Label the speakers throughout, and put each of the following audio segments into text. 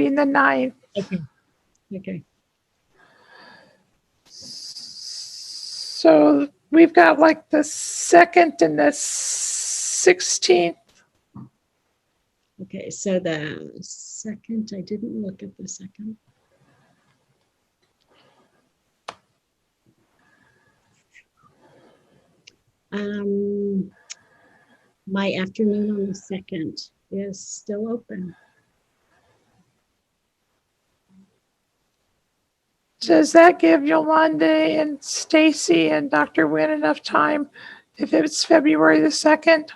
Speaker 1: meeting the ninth.
Speaker 2: Okay. Okay.
Speaker 1: So we've got like the second and the sixteenth.
Speaker 2: Okay. So the second, I didn't look at the second. Um, my afternoon on the second is still open.
Speaker 1: Does that give Yolanda and Stacy and Dr. Nguyen enough time if it's February the second?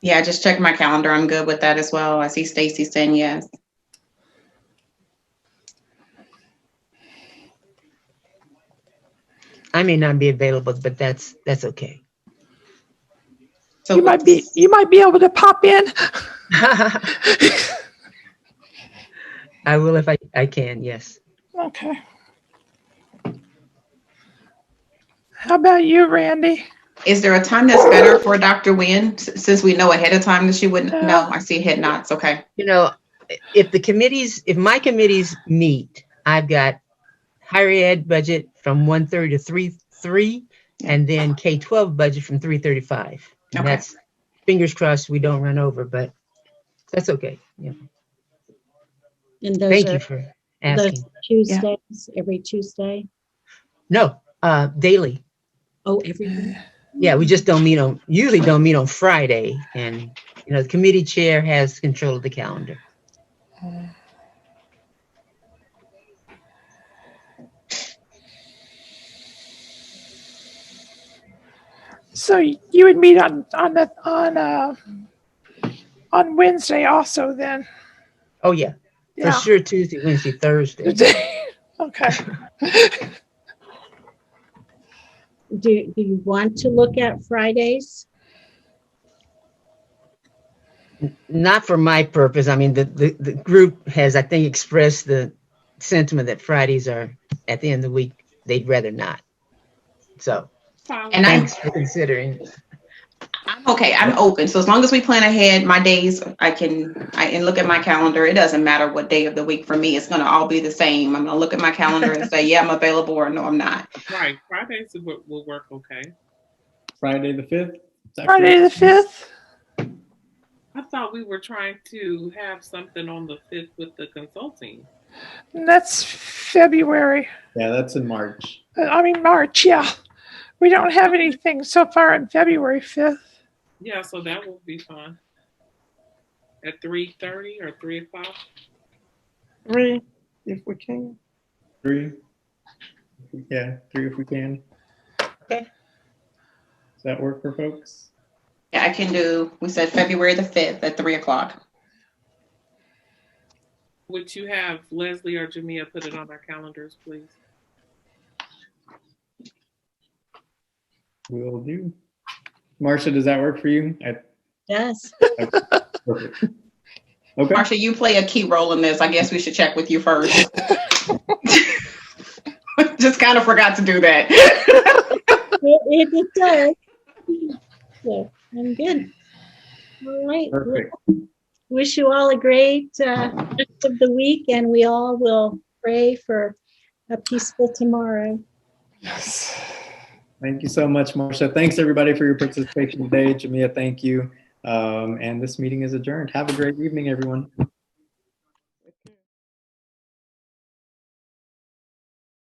Speaker 3: Yeah, I just checked my calendar. I'm good with that as well. I see Stacy saying yes.
Speaker 4: I may not be available, but that's, that's okay.
Speaker 3: So
Speaker 1: You might be, you might be able to pop in.
Speaker 4: I will if I, I can, yes.
Speaker 1: Okay. How about you, Randy?
Speaker 3: Is there a time that's better for Dr. Nguyen s- since we know ahead of time that she wouldn't? No, I see head nods. Okay.
Speaker 4: You know, if the committees, if my committees meet, I've got higher ed budget from 1:30 to 3, 3, and then K-12 budget from 3:35.
Speaker 3: Okay.
Speaker 4: And that's, fingers crossed, we don't run over, but that's okay. Yeah.
Speaker 2: And those
Speaker 4: Thank
Speaker 2: are
Speaker 4: you for
Speaker 2: those
Speaker 4: asking.
Speaker 2: Tuesdays, every Tuesday.
Speaker 4: No, uh, daily.
Speaker 2: Oh, every.
Speaker 4: Yeah, we just don't meet on, usually don't meet on Friday. And, you know, the committee chair has control of the calendar.
Speaker 1: So you would meet on, on the, on, uh, on Wednesday also then?
Speaker 4: Oh, yeah, for
Speaker 1: Yeah.
Speaker 4: sure Tuesday, Wednesday, Thursday.
Speaker 1: Okay.
Speaker 2: Do, do you want to look at Fridays?
Speaker 4: Not for my purpose. I mean, the, the, the group has, I think, expressed the sentiment that Fridays are, at the end of the week, they'd rather not. So
Speaker 3: And I'm,
Speaker 4: thanks for considering.
Speaker 3: I'm okay. I'm open. So as long as we plan ahead, my days, I can, I can look at my calendar. It doesn't matter what day of the week for me. It's going to all be the same. I'm going to look at my calendar and say, yeah, I'm available or no, I'm not.
Speaker 5: Right, Fridays will, will work okay.
Speaker 6: Friday the fifth.
Speaker 1: Friday the fifth?
Speaker 5: I thought we were trying to have something on the fifth with the consulting.
Speaker 1: That's February.
Speaker 6: Yeah, that's in March.
Speaker 1: Uh, I mean, March, yeah. We don't have anything so far on February fifth.
Speaker 5: Yeah, so that will be fun. At three thirty or three o'clock.
Speaker 7: Three, if we can.
Speaker 6: Three. Yeah, three if we can.
Speaker 4: Okay.
Speaker 6: Does that work for folks?
Speaker 3: Yeah, I can do, we said February the 5th at three o'clock.
Speaker 5: Would you have Leslie or Jamia put it on our calendars, please?
Speaker 6: Will do. Marcia, does that work for you? I-
Speaker 2: Yes.
Speaker 6: perfect. Okay,
Speaker 3: Marsha, you play a key role in this. I guess we should check with you first. Just kind of forgot to do that.
Speaker 2: It, it- it does. So I'm good. All right.
Speaker 6: perfect.
Speaker 2: Wish you all a great uh, rest of the week and we all will pray for a peaceful tomorrow.
Speaker 6: Thank you so much, Marcia. Thanks, everybody, for your participation today. Jamia, thank you. Um, and this meeting is adjourned. Have a great evening, everyone.